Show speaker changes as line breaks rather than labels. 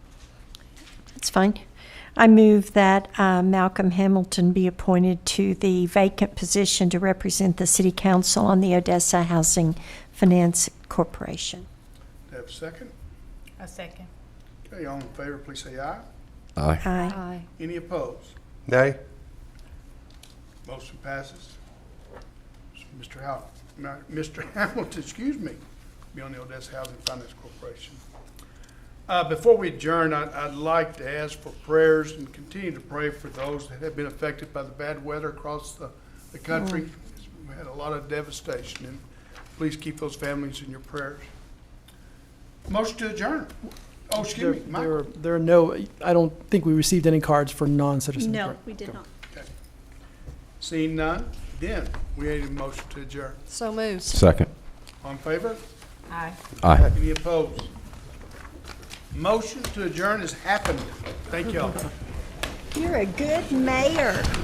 That's fine. I move that uh, Malcolm Hamilton be appointed to the vacant position to represent the City Council on the Odessa Housing Finance Corporation.
Do I have a second?
A second.
Okay, all in favor, please say aye.
Aye.
Aye.
Any opposed?
Nay.
Motion passes. Mr. Hal, Ma- Mr. Hamilton, excuse me, be on the Odessa Housing Finance Corporation. Uh, before we adjourn, I'd, I'd like to ask for prayers and continue to pray for those that have been affected by the bad weather across the, the country. We had a lot of devastation, and please keep those families in your prayers. Motion to adjourn. Oh,
There-
excuse me,
There,
Michael.
are- there are no, I don't think we received any cards for non-citizens. correct?
we did not.
Seeing none, then we need a motion to adjourn.
So moved.
Second.
On favor?
Aye.
Aye.
Any opposed? Motion to adjourn has happened. Thank y'all.
You're a good mayor.